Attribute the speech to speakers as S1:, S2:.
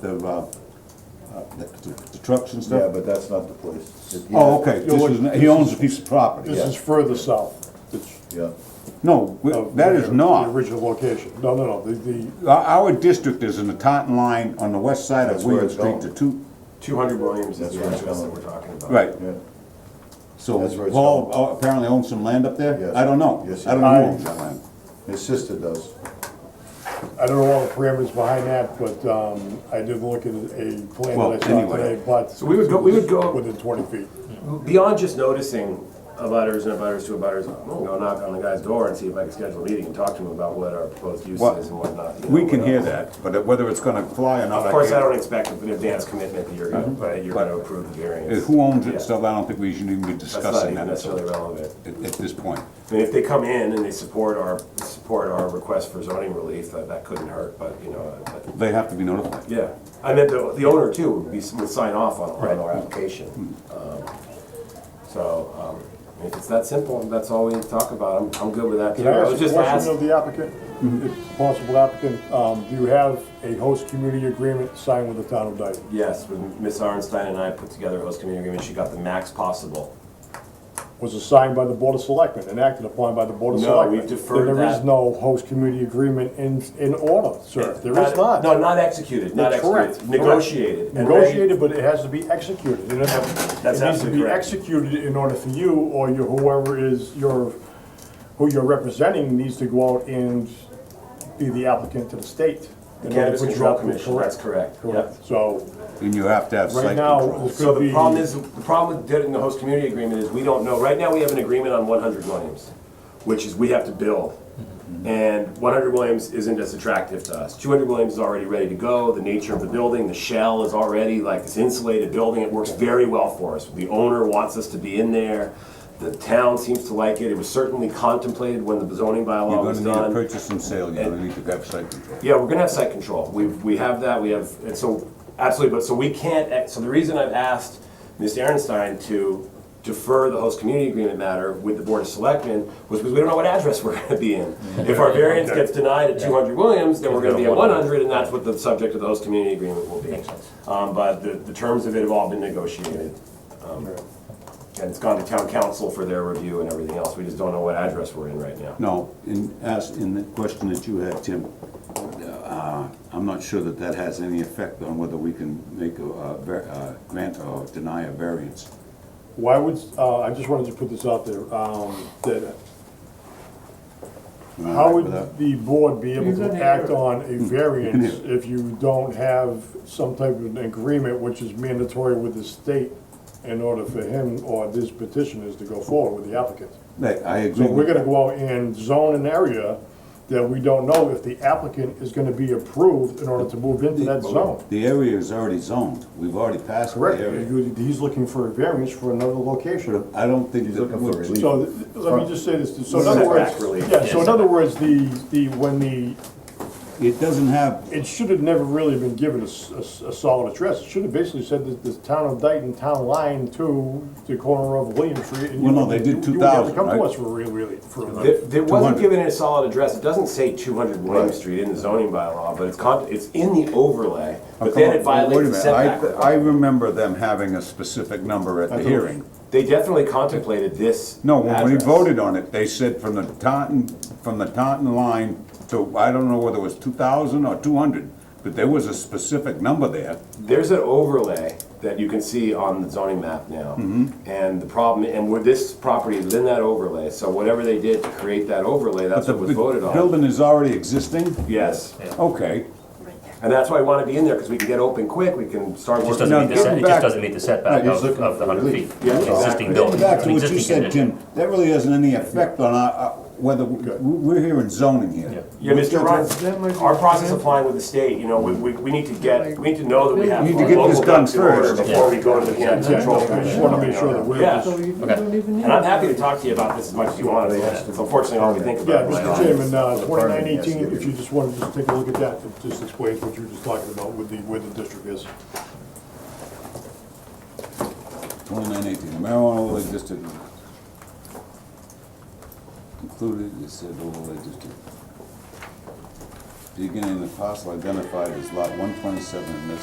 S1: the, uh, uh, the the trucks and
S2: Yeah,
S1: stuff?
S2: but that's not the place. It-
S1: Oh, okay,
S3: You know,
S1: this is, he owns a piece of property.
S3: This is further south. It's-
S2: Yeah,
S1: No, we-
S2: Oh,
S3: of
S1: that is
S3: the- The
S1: not.
S3: original location. No, no, no, the, the,
S1: Our, our district is in the Taunton line on the west side of
S2: That's where
S1: Weird
S2: it's
S1: Street
S2: going.
S1: to two,
S4: Two hundred Williams is
S2: That's
S4: the
S2: where it's
S4: address that
S2: going.
S4: we're talking about.
S1: right.
S2: yeah.
S1: So
S2: That's where it's
S1: Paul
S2: going.
S1: uh, apparently owns some land up there?
S2: Yes.
S1: I don't know.
S2: Yes,
S1: I don't know who
S3: I-
S1: owns that land.
S2: His sister does.
S3: I don't know all the parameters behind that, but, um, I did look at a plan
S1: Well,
S3: that I saw
S1: anyway.
S3: today, but.
S4: So we would go- we would go-
S3: Within twenty feet.
S4: Beyond just noticing abutters and abutters to abutters, I'm gonna go knock on the guy's door and see if I can schedule a meeting and talk to him about what our proposed use
S1: Well,
S4: is and whatnot. you know,
S1: We can
S4: what
S1: hear
S4: else.
S1: that, but whether it's gonna fly or not,
S4: Of
S1: I
S4: course, I don't
S1: can't.
S4: expect an advance commitment that you're gonna, that you're gonna approve the
S1: Uh,
S4: variance.
S1: Mm-hmm. Who owns it
S4: Yeah.
S1: and stuff, I don't think we should even be
S4: That's not
S1: discussing
S4: even
S1: that
S4: necessarily
S1: at,
S4: relevant.
S1: at this point.
S4: I mean, if they come in and they support our, support our request for zoning relief, that, that couldn't hurt, but, you know, but,
S1: They have to be notified.
S4: yeah. I meant the, the owner too would be, would sign off on, on our application.
S3: Hmm.
S4: Um, So, um, I mean, if it's that simple, and that's all we talk about, I'm, I'm good with that.
S3: Can I
S4: was
S3: ask a
S4: just
S3: question
S4: ask-
S3: of the applicant?
S1: Mm-hmm.
S3: If Possible applicant, um, do you have a host community agreement signed with the town of Dayton?
S4: Yes, when Ms. Arnstein and I put together a host community agreement, she got the max possible.
S3: Was assigned by the board of selectmen and acted upon by the board of
S4: No,
S3: selectmen?
S4: we've deferred
S3: Then There
S4: that.
S3: is no host community agreement in, in order, sir. There is not.
S4: No, not executed, not
S3: That's correct,
S4: executed, negotiated. and ready-
S3: Negotiated, but it has to be executed. It has- it
S4: That's
S3: needs to
S4: absolutely
S3: be
S4: correct.
S3: executed in order for you or your, whoever is your, who you're representing needs to go out and be the applicant to the state.
S4: The
S3: in order
S4: Cannabis
S3: to put you
S4: Control
S3: up with
S4: Commission, that's correct, yeah.
S3: Correct. So
S1: And you have to have
S3: right
S1: site
S3: now,
S1: control.
S3: it
S4: So
S3: could
S4: the
S3: be.
S4: problem is, the problem with doing the host community agreement is we don't know, right now we have an agreement on one hundred Williams, which is we have to bill.
S1: Mm-hmm.
S4: And one hundred Williams isn't as attractive to us. Two hundred Williams is already ready to go, the nature of the building, the shell is already like this insulated building, it works very well for us. The owner wants us to be in there, the town seems to like it, it was certainly contemplated when the zoning
S1: You're
S4: bylaw
S1: gonna
S4: was
S1: need a
S4: done.
S1: purchase and sale, you're gonna need to have site control.
S4: Yeah, we're gonna have site control. We, we have that, we have, and so, absolutely, but so we can't, ex- so the reason I've asked Ms. Aaronstein to defer the host community agreement matter with the Board of Selectmen was because we don't know what address we're gonna be in. If our variance gets denied at two hundred Williams, then we're gonna be at one hundred, and that's what the subject of the host community agreement will be. Um, but the, the terms of it have all been negotiated. Um, And it's gone to town council for their review and everything else. We just don't know what address we're in right now.
S1: No, in, as, in the question that you had, Tim, uh, I'm not sure that that has any effect on whether we can make a, uh, var- uh, grant or deny a variance.
S3: Why would, uh, I just wanted to put this out there, um, that
S1: Am I
S3: How
S1: right
S3: would
S1: with that? Mm-hmm.
S3: the board be able
S5: He's in
S3: to
S5: here.
S3: act on a variance
S1: in
S3: if you don't have some type of an agreement which is mandatory with the state in order for him or this petitioners to go forward with the applicant?
S1: Hey, I
S3: So
S1: agree
S3: we're
S1: with
S3: gonna go out and zone an area that we don't know if the applicant is gonna be approved in order to move into that zone.
S1: The area is already zoned, we've already passed the
S3: Correct,
S1: area.
S3: You- he's looking for a variance for another location.
S1: I don't think.
S2: He's
S1: that
S2: looking for
S1: would-
S2: relief.
S3: So, th- let me just say this, so in other
S4: Setback
S3: words,
S4: relief.
S3: yeah, so in other words, the, the, when the
S1: It doesn't have,
S3: it should have never really been given a, s- a s- a solid address. It should have basically said that the town of Dayton, town line to the corner of William Street. and you
S1: Well, no,
S3: would-
S1: they did
S3: you would have to
S1: 2000,
S3: Come
S1: right?
S3: to us for really, really, for a-
S4: There, there wasn't
S1: 200.
S4: given a solid address, it doesn't say two hundred William Street in the zoning bylaw, but it's con, it's in the overlay, but then it
S1: Oh, Wait a
S4: violates the
S1: minute, I-
S4: setback.
S1: I remember them having a specific number at the hearing.
S4: They definitely contemplated this.
S1: No, when we
S4: address.
S1: voted on it, they said from the Taunton, from the Taunton line to, I don't know whether it was two thousand or two hundred, but there was a specific number there.
S4: There's an overlay that you can see on the zoning map now.
S1: Mm-hmm.
S4: And the problem, and where this property is in that overlay, so whatever they did to create that overlay, that's
S1: The
S4: what was voted on.
S1: Building is already existing?
S4: Yes,
S1: Okay.
S4: and that's why I wanna be in there, cause we can get open quick, we can start
S6: It
S4: working.
S6: just doesn't meet the, set- it
S1: back-
S6: just doesn't meet the setback
S2: No, he's
S6: of,
S2: looking
S6: of the
S2: for
S6: hundred
S2: relief.
S6: feet.
S4: Yeah,
S6: The
S4: exactly.
S6: Existing
S1: Getting
S6: building,
S1: back to
S6: the
S1: what you
S6: existing
S1: said,
S6: condition.
S1: Tim, that really hasn't any effect on our, uh, whether, we- we're here in zoning here.
S4: Yeah, Mr.
S5: That
S4: Ryan,
S5: might be-
S4: our process applying with the state, you know, we, we, we need to get, we need to know that we have.
S1: We need to get
S4: local
S1: this done
S4: ducks in order
S1: first.
S4: Before we go to the Cannabis Control
S3: I just
S4: Commission.
S3: wanna make sure that we're-
S5: So
S4: Yeah,
S5: you
S6: Okay.
S5: don't even need.
S4: and I'm happy to talk to you about this as much as you want, it's unfortunately all we think
S3: Yeah,
S4: about. right now.
S3: Mr. Chairman, uh, twenty-nine
S2: Department has to
S3: eighteen,
S2: give
S3: if you just wanted to just take a look at that, it just explains what you were just talking about with the, where the district is.
S1: Twenty-nine eighteen, marijuana overlay district. Included, it said overlay district. Beginning the parcel identified as lot one twenty-seven, and that's